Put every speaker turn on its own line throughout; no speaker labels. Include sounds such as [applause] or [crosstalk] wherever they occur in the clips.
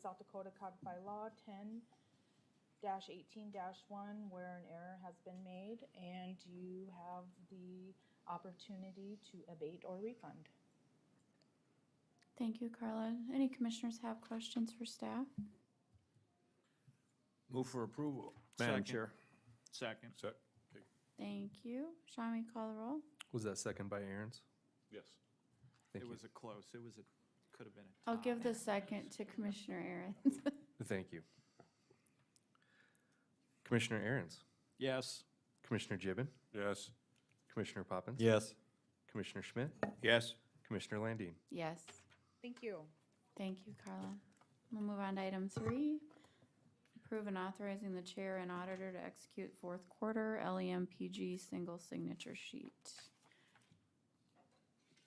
South Dakota Codified Law ten eighteen one, where an error has been made, and you have the opportunity to abate or refund.
Thank you, Carla. Any commissioners have questions for staff?
Move for approval.
Madam
Madam
Chair.
Chair.
Second.
Sec, okay,
Thank you. Sean, will you call the roll?
Was that second by Aaron's?
yes.
Thank
It
you.
was a close, it was a, could have been a.
I'll give
tie.
the second to Commissioner Aaron's.
Thank you. Commissioner Aaron's,
Yes.
Commissioner Gibbon,
Yes.
Commissioner Poppins.
Yes.
Commissioner Schmidt,
Yes.
Commissioner Landine.
[laughs] Yes.
Thank you.
Thank you, Carla. We'll move on to item three. Approve and authorizing the chair and auditor to execute fourth quarter E LEMPG single signature sheet.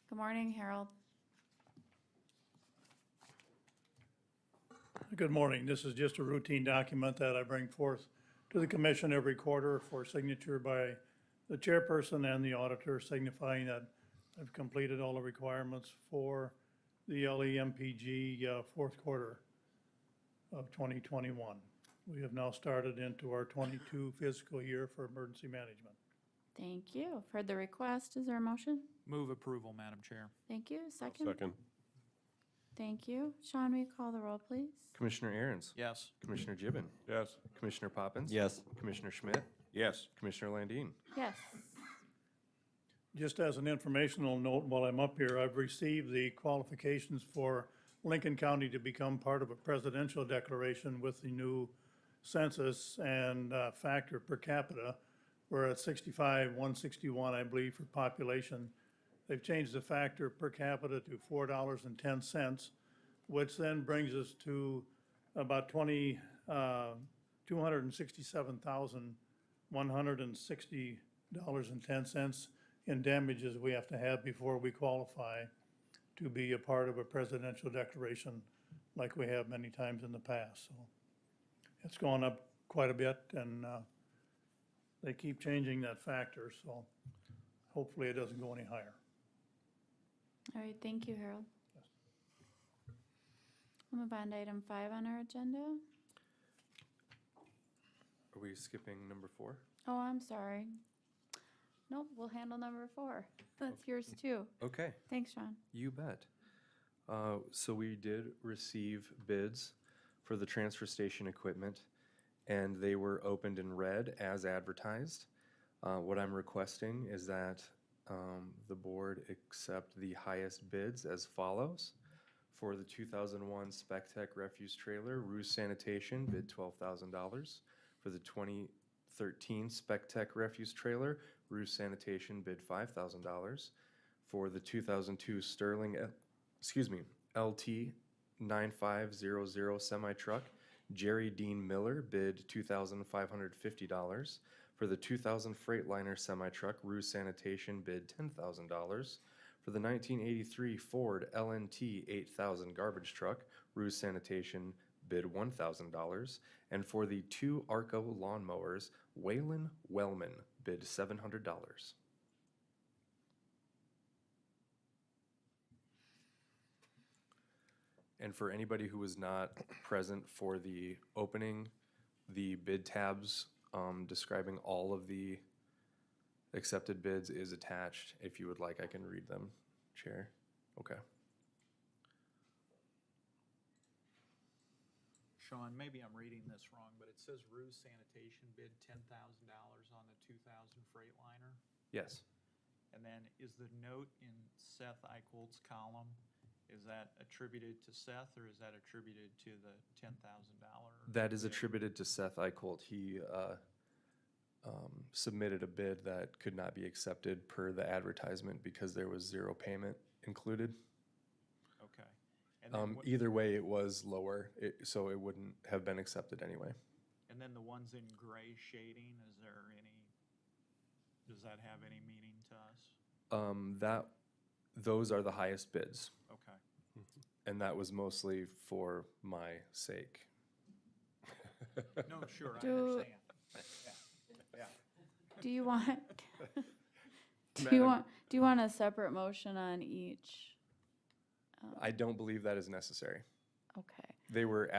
Good morning, Harold.
Good morning. This is just a routine document that I bring forth to the commission every quarter for signature by the chairperson and the auditor signifying that I've completed all the requirements for the E LEMPG uh, fourth quarter of 2021. We have now started into our 22 fiscal year for emergency management.
Thank you. I've Heard the request. Is there a motion?
Move approval, Madam Chair.
Thank you. Second?
Second,
Thank you. Sean, will you call the roll, please?
Commissioner Aaron's,
Yes.
Commissioner Gibbon,
yes.
Commissioner Poppins.
Yes.
Commissioner Schmidt,
Yes.
Commissioner Landine.
Yes.
Just as an informational note, while I'm up here, I've received the qualifications for Lincoln County to become part of a presidential declaration with the new census and uh, factor per capita. We're at 65, 161, I believe, for population. They've changed the factor per capita to $4.10, which then brings us to about 20, uh, 267,000 one hundred and sixty dollars and ten cents in damages we have to have before we qualify to be a part of a presidential declaration like we have many times in the past, so. It's gone up quite a bit and, uh, they keep changing that factor, so hopefully it doesn't go any higher.
All right, thank you, Harold. We'll move on to item five on our agenda.
Are we skipping number four?
Oh, I'm sorry. Nope, we'll handle number four. That's yours too.
Okay.
Thanks, Sean.
You bet. Uh, So we did receive bids for the transfer station equipment, and they were opened in red as advertised. Uh, What I'm requesting is that um, the board accept the highest bids as follows. For the 2001 Spec Tech refuse trailer, Ruse Sanitation bid $12,000. For the 2013 Spec Tech refuse trailer, Ruse Sanitation bid $5,000 for the 2002 Sterling, uh, excuse me, LT 9500 semi truck. Jerry Dean Miller bid $2,550. For the 2000 Freightliner semi truck, Rue Sanitation bid $10,000. For the 1983 Ford LNT 8000 garbage truck, Rue Sanitation bid $1,000. And for the two Arco lawnmowers, Waylon Wellman bid $700. And for anybody who was not present for the opening, the bid tabs um, describing all of the accepted bids is attached. If you would like, I can read them, Chair. Okay.
Sean, maybe I'm reading this wrong, but it says Ruse Sanitation bid ten thousand dollars on the two thousand Freightliner.
Yes.
And then is the note in Seth Eicholt's column, is that attributed to Seth or is that attributed to the ten thousand dollar?
That is attributed to Seth Eicholt. He uh, um, submitted a bid that could not be accepted per the advertisement because there was zero payment included.
Okay. And then
Um,
what-
Either way, it was lower, it- so it wouldn't have been accepted anyway.
And then the ones in gray shading, is there any, does that have any meaning to us?
Um, that, those are the highest bids,
Okay.
and that was mostly for my sake.
No, sure, I
Do-
understand. Yeah,
Do you want, [laughs] do you
Madam-
want, do you want a separate motion on each?
I don't believe that is necessary.
Okay.
They were